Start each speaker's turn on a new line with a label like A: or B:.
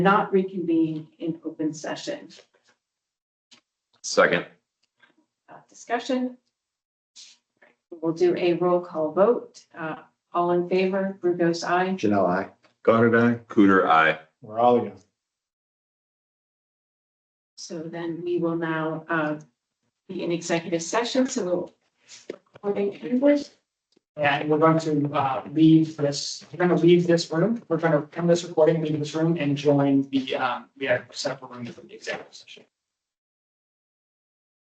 A: not reconvene in open session.
B: Second.
A: Uh, Discussion. We'll do a roll call vote. Uh, All in favor, Brugos, aye.
C: Janelle, I.
D: Goddard, aye.
B: Cooter, aye.
D: We're all again.
A: So then we will now uh, be in executive session, so we'll. recording English.
E: And we're going to uh, leave this, we're going to leave this room. We're going to come to this recording, leave this room and join the, um, we have a separate room for the executive session.